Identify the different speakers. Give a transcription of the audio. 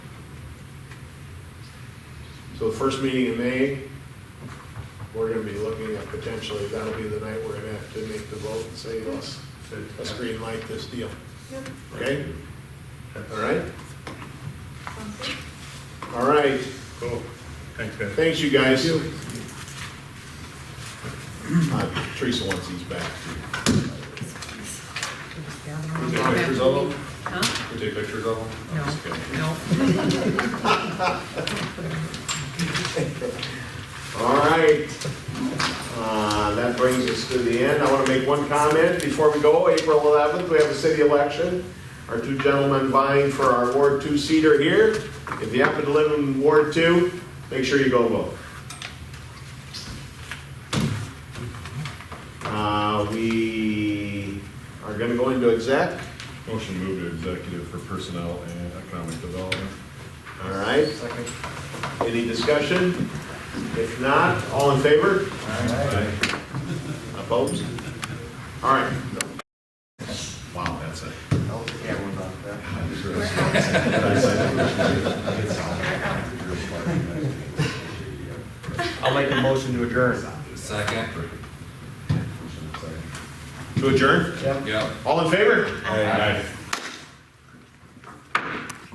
Speaker 1: So the first meeting in May, we're gonna be looking at potentially, that'll be the night we're gonna have to make the vote and say, let's, let's green light this deal,
Speaker 2: Yep,
Speaker 1: okay? All right?
Speaker 2: sounds good.
Speaker 1: All right,
Speaker 3: Cool. Thanks, guys.
Speaker 1: thanks you guys. Uh, Teresa wants these back. Did you take pictures of them?
Speaker 4: Huh?
Speaker 1: Did you take pictures of them?
Speaker 4: No,
Speaker 1: Okay.
Speaker 4: no.
Speaker 1: All right. Uh, That brings us to the end. I want to make one comment before we go. April 11th, we have a city election. Our two gentlemen vying for our Ward 2 seat are here. If you happen to live in Ward 2, make sure you go vote. Uh, We are going to go into exec.
Speaker 3: Motion to move to executive for personnel and economic development.
Speaker 1: All right. Any discussion? If not, all in favor?
Speaker 3: Aye.
Speaker 1: Opposed? All right. Wow, that's it.
Speaker 5: I'll make a motion to adjourn.
Speaker 6: Second.
Speaker 1: To adjourn?
Speaker 6: Yep.
Speaker 1: All in favor?
Speaker 3: Aye.